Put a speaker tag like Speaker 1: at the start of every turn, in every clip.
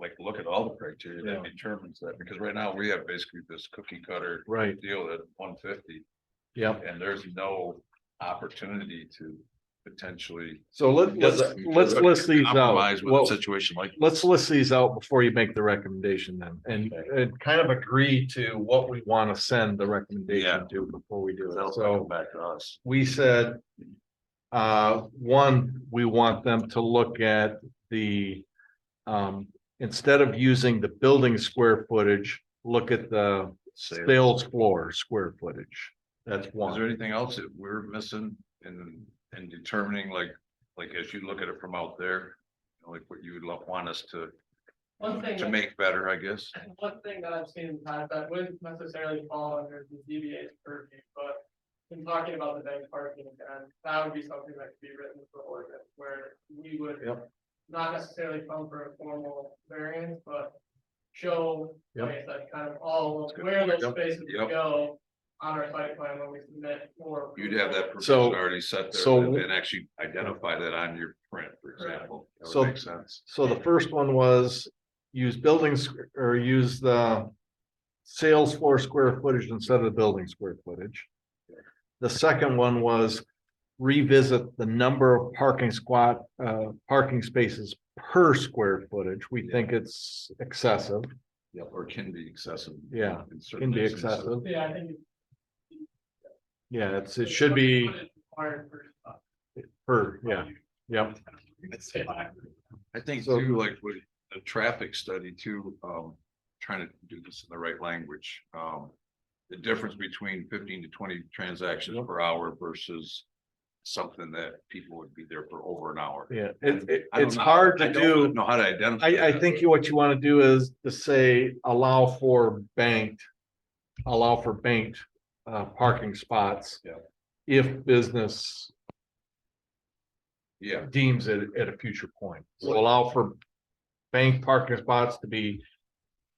Speaker 1: like, look at all the criteria that
Speaker 2: Yeah.
Speaker 1: determines that, because right now we have basically this cookie cutter
Speaker 2: Right,
Speaker 1: deal at one fifty,
Speaker 2: yep.
Speaker 1: and there's no opportunity to potentially.
Speaker 2: So let, let's, let's list these out.
Speaker 1: Compromise with a
Speaker 2: Well,
Speaker 1: situation like.
Speaker 2: let's list these out before you make the recommendation then, and, and kind of agree to what we want to send the
Speaker 1: Yeah.
Speaker 2: recommendation to before we do
Speaker 1: That'll
Speaker 2: it. So
Speaker 1: come back to us.
Speaker 2: we said, uh, one, we want them to look at the, um, instead of using the building square footage, look at the
Speaker 1: Sale.
Speaker 2: sales floor square footage. That's
Speaker 1: Is there
Speaker 2: one.
Speaker 1: anything else that we're missing in, in determining like, like as you look at it from out there? Like what you would lo- want us to,
Speaker 3: One thing,
Speaker 1: to
Speaker 3: that-
Speaker 1: make better, I guess?
Speaker 3: one thing that I've seen in the past that wouldn't necessarily fall under the ZBA's purview, but. In talking about the bank parking, and that would be something that could be written for ordinance, where we would.
Speaker 2: Yep.
Speaker 3: Not necessarily come for a formal variance, but show,
Speaker 2: Yep.
Speaker 3: like I said, kind of all
Speaker 1: That's
Speaker 3: of
Speaker 1: good.
Speaker 3: where those
Speaker 2: Yep.
Speaker 3: spaces
Speaker 1: Yep.
Speaker 3: go. On our site plan when we submit for.
Speaker 1: You'd have that
Speaker 3: approval.
Speaker 1: provision
Speaker 2: So-
Speaker 1: already set there
Speaker 2: so-
Speaker 1: and then actually identify that on your print, for example. That
Speaker 2: So-
Speaker 1: would make sense.
Speaker 2: So the first one was use buildings or use the sales floor square footage instead of the building square footage. The second one was revisit the number of parking squat, uh, parking spaces per square footage. We think it's excessive.
Speaker 1: Yeah, or can be excessive.
Speaker 2: Yeah,
Speaker 1: in certain
Speaker 2: Can be
Speaker 1: instances.
Speaker 2: excessive.
Speaker 3: Yeah, I think.
Speaker 2: Yeah, it's, it should be
Speaker 3: Required for.
Speaker 2: per, yeah, yeah.
Speaker 1: I think
Speaker 2: So-
Speaker 1: too, like with the traffic study too, um, trying to do this in the right language, um. The difference between fifteen to twenty transactions
Speaker 2: Yep.
Speaker 1: per hour versus something that people would be there for over an hour.
Speaker 2: Yeah, it, it,
Speaker 1: I don't
Speaker 2: it's
Speaker 1: know-
Speaker 2: hard
Speaker 1: I
Speaker 2: to
Speaker 1: don't
Speaker 2: do.
Speaker 1: Know how to identify.
Speaker 2: I, I
Speaker 1: that,
Speaker 2: think
Speaker 1: but-
Speaker 2: you- what you want to do is to say allow for banked, allow for banked, uh, parking spots.
Speaker 1: Yeah.
Speaker 2: If business
Speaker 1: Yeah,
Speaker 2: deems it at a future point, so allow for bank parking spots to be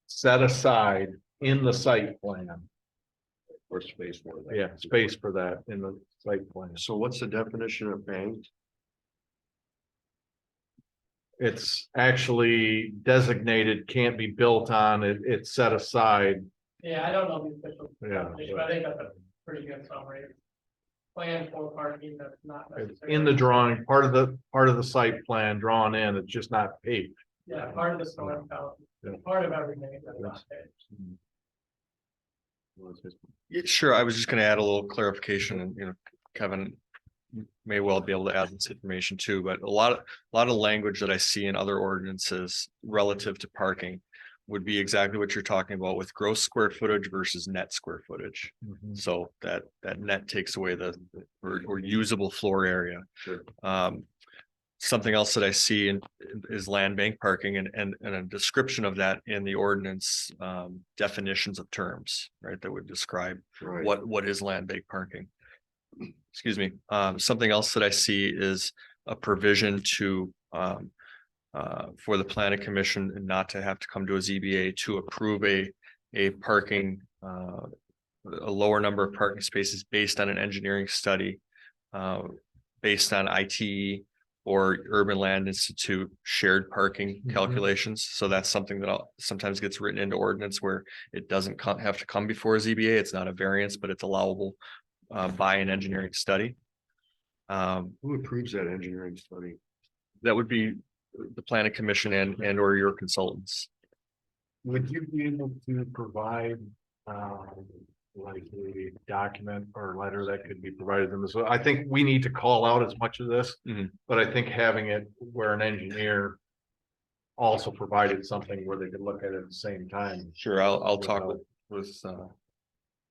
Speaker 2: set aside in the site plan.
Speaker 1: or space for that.
Speaker 2: Yeah, space for that in the site plan.
Speaker 4: So what's the definition of banked?
Speaker 2: It's actually designated, can't be built on, it, it's set aside,
Speaker 3: Yeah, I don't know the official
Speaker 2: yeah.
Speaker 3: definition, but I think that's a pretty good summary. Plan for parking that's not
Speaker 2: It's
Speaker 3: necessarily.
Speaker 2: in the drawing, part of the, part of the site plan drawn in, it's just not paved.
Speaker 3: Yeah, part of the storm count,
Speaker 2: Yeah.
Speaker 3: part of everything that's not there.
Speaker 4: Yeah, sure, I was just gonna add a little clarification and, you know, Kevin. m- May well be able to add this information too, but a lot, of a lot of language that I see in other ordinances relative to parking. Would be exactly what you're talking about with gross square footage versus net square footage.
Speaker 2: Mm-hmm.
Speaker 4: So that, that net takes away the, or, or usable floor area.
Speaker 1: Sure.
Speaker 4: Um, something else that I see in, is land bank parking and, and, and a description of that in the ordinance, um, definitions of terms, right, that would describe
Speaker 1: Right.
Speaker 4: what, what is land bank parking? Excuse me, um, something else that I see is a provision to, um. Uh, for the planning commission and not to have to come to a ZBA to approve a, a parking, uh. A lower number of parking spaces based on an engineering study, uh, based on IT. Or Urban Land Institute shared parking
Speaker 2: Mhm.
Speaker 4: calculations, so that's something that I'll- sometimes gets written into ordinance where it doesn't co- have to come before a ZBA. It's not a variance, but it's allowable uh, by an engineering study. Um,
Speaker 1: Who approves that engineering study?
Speaker 4: that would be the planning commission and, and or your consultants.
Speaker 2: Would you be able to provide, um, like a document or letter that could be provided to them? So I think we need to call out as much of this.
Speaker 4: Mhm.
Speaker 2: But I think having it where an engineer also provided something where they could look at it at the same time.
Speaker 4: Sure, I'll, I'll talk with, with, uh,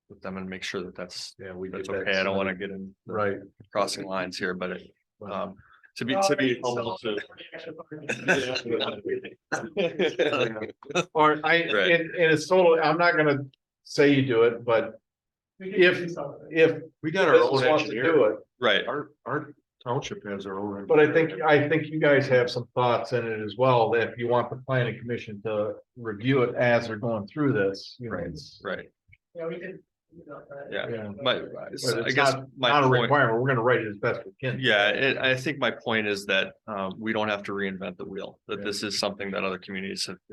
Speaker 4: with them and make sure that that's,
Speaker 2: Yeah, we.
Speaker 4: that's
Speaker 2: get that
Speaker 4: okay. I don't want to
Speaker 2: sent.
Speaker 4: get in the
Speaker 2: Right.
Speaker 4: crossing lines here, but it,
Speaker 2: but-
Speaker 4: um, to be, to be. helpful to-
Speaker 2: Or I, and,
Speaker 4: Right.
Speaker 2: and it's totally, I'm not gonna say you do it, but
Speaker 3: We could
Speaker 2: If-
Speaker 3: do something.
Speaker 2: if
Speaker 1: We got our
Speaker 2: business
Speaker 1: own
Speaker 2: wants to
Speaker 1: engineer.
Speaker 2: do it,
Speaker 4: Right,
Speaker 1: Our, our township has our own.
Speaker 2: But I think, I think you guys have some thoughts in it as well, that if you want the planning commission to review it as they're going through this. you know,
Speaker 4: Right.
Speaker 2: it's-
Speaker 4: right.
Speaker 3: Yeah, we could. do that.
Speaker 4: Yeah.
Speaker 2: Yeah.
Speaker 4: My,
Speaker 2: But
Speaker 4: I
Speaker 2: it's
Speaker 4: guess
Speaker 2: not-
Speaker 4: my
Speaker 2: Not a
Speaker 4: point,
Speaker 2: requirement, we're gonna write it as best we can.
Speaker 4: Yeah, it, I think my point is that, um, we don't have to reinvent the wheel, that
Speaker 2: Yeah.
Speaker 4: this is something that other communities have